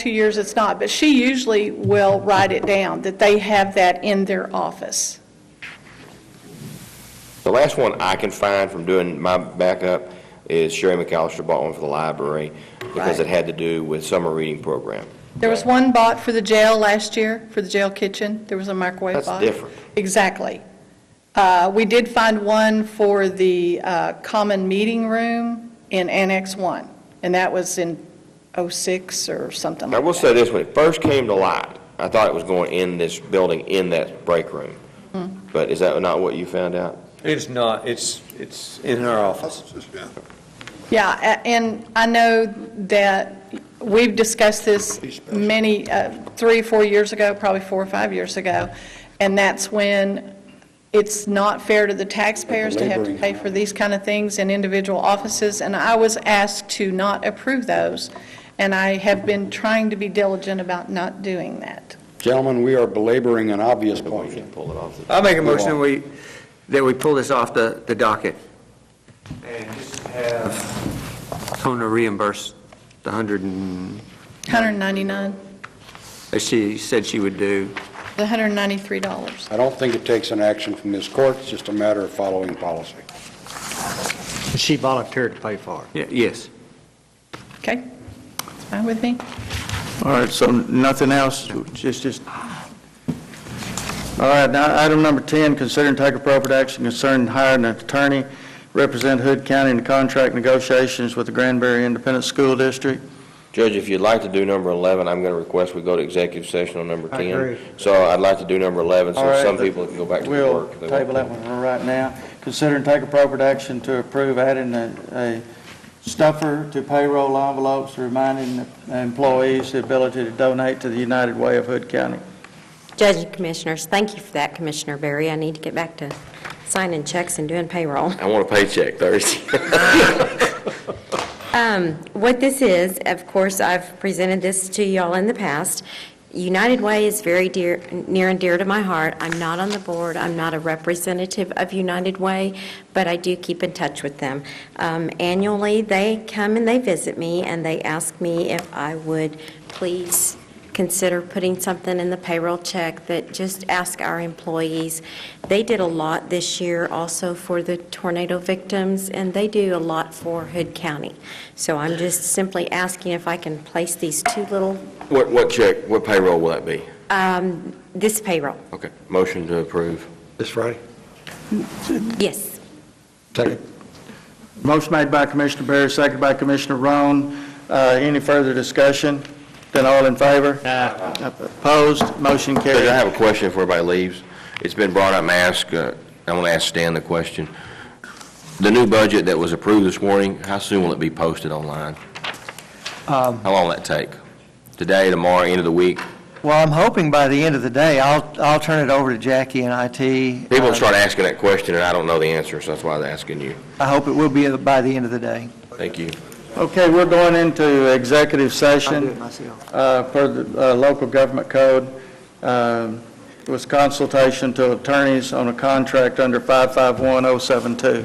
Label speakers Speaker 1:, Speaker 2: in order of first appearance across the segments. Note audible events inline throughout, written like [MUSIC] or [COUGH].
Speaker 1: two years it's not, but she usually will write it down, that they have that in their office.
Speaker 2: The last one I can find from doing my backup is Sherry McAllister bought one for the library because
Speaker 1: Right.
Speaker 2: it had to do with summer reading program.
Speaker 1: There was one bought for the jail last year, for the jail kitchen, there was a microwave
Speaker 2: That's
Speaker 1: box.
Speaker 2: different.
Speaker 1: Exactly. Uh, We did find one for the uh, common meeting room in Annex 1, and that was in '06 or something
Speaker 2: I
Speaker 1: like
Speaker 2: will
Speaker 1: that.
Speaker 2: say this, when it first came to light, I thought it was going in this building, in that break room. But is that not what you found out?
Speaker 3: It's not, it's, it's in our office.
Speaker 1: Yeah, a- and I know that we've discussed this many, uh, three, four years ago, probably four or five years ago, and that's when it's not fair to the taxpayers to have to pay for these kind of things in individual offices, and I was asked to not approve those, and I have been trying to be diligent about not doing that.
Speaker 4: Gentlemen, we are belaboring an obvious
Speaker 2: We
Speaker 4: point.
Speaker 2: can't pull it off. the-
Speaker 5: I'll make a motion that we, that we pull this off the, the docket. And just have. Kona reimburse the hundred and,
Speaker 1: 199,
Speaker 5: as she said she would do.
Speaker 1: the $193.
Speaker 4: I don't think it takes an action from this court, it's just a matter of following policy.
Speaker 6: She volunteered to pay for it.
Speaker 5: Ye- Yes.
Speaker 1: Okay? It's fine with me?
Speaker 7: All right, so nothing else, just, just, all right, now, item number 10, consider and take appropriate action concerning hiring an attorney, represent Hood County in the contract negotiations with the Granbury Independent School District.
Speaker 2: Judge, if you'd like to do number 11, I'm going to request we go to executive session on number 10.
Speaker 7: I agree.
Speaker 2: So I'd like to do number 11,
Speaker 7: All
Speaker 2: so
Speaker 7: right,
Speaker 2: some people can go back to their work. if they
Speaker 7: We'll
Speaker 2: want
Speaker 7: table
Speaker 2: to.
Speaker 7: that one for right now. Consider and take appropriate action to approve adding a, a stuffer to payroll envelopes, reminding the employees the ability to donate to the United Way of Hood County.
Speaker 8: Judge and Commissioners, thank you for that, Commissioner Berry. I need to get back to signing checks and doing payroll.
Speaker 2: I want a paycheck Thursday.
Speaker 8: Um, What this is, of course, I've presented this to y'all in the past. United Way is very dear, near and dear to my heart. I'm not on the board, I'm not a representative of United Way, but I do keep in touch with them. Um, Annually, they come and they visit me, and they ask me if I would please consider putting something in the payroll check that just ask our employees. They did a lot this year also for the tornado victims, and they do a lot for Hood County. So I'm just simply asking if I can place these two little,
Speaker 2: [LAUGHS] What, what check, what payroll will that be?
Speaker 8: um, this payroll.
Speaker 2: Okay, motion to approve.
Speaker 6: This Friday?
Speaker 8: Yes.
Speaker 6: Second.
Speaker 7: Motion made by Commissioner Berry, seconded by Commissioner Roan. Uh, Any further discussion? Then all in favor? Opposed? Motion
Speaker 2: Judge, I
Speaker 7: carried.
Speaker 2: have a question before everybody leaves. It's been brought up, Ask. uh, I want to ask Stan the question. The new budget that was approved this morning, how soon will it be posted online? How
Speaker 9: Um,
Speaker 2: long will that take? Today, tomorrow, end of the week?
Speaker 9: Well, I'm hoping by the end of the day, I'll, I'll turn it over to Jackie and IT.
Speaker 2: People
Speaker 9: Uh,
Speaker 2: will start asking that question, and I don't know the answer, so that's why I'm asking you.
Speaker 9: I hope it will be by the end of the day.
Speaker 2: Thank you.
Speaker 7: Okay, we're going into executive
Speaker 9: I'll do
Speaker 7: session
Speaker 9: it myself.
Speaker 7: uh, per the uh, local government code. Um, It was consultation to attorneys on a contract under 551072.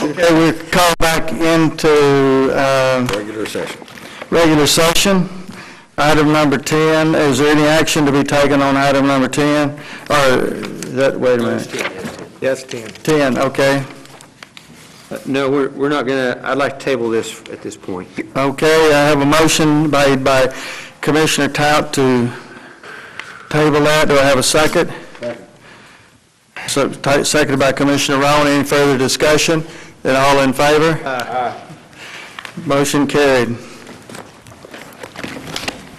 Speaker 7: Okay, we're called back into um,
Speaker 4: Regular session.
Speaker 7: regular session. Item number 10, is there any action to be taken on item number 10? Or, that, wait a minute,
Speaker 3: That's 10.
Speaker 7: 10, okay.
Speaker 5: Uh, No, we're, we're not gonna, I'd like to table this at this point.
Speaker 7: Okay, I have a motion made by Commissioner Tout to table that. Do I have a second? So, ta- seconded by Commissioner Rowan. Any further discussion? Then all in favor? Motion carried.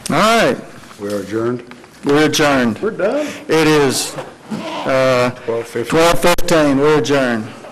Speaker 7: All right,
Speaker 4: We are adjourned.
Speaker 7: we're adjourned.
Speaker 4: We're done.
Speaker 7: It is uh,
Speaker 4: 12:15.
Speaker 7: 12:15, we're adjourned.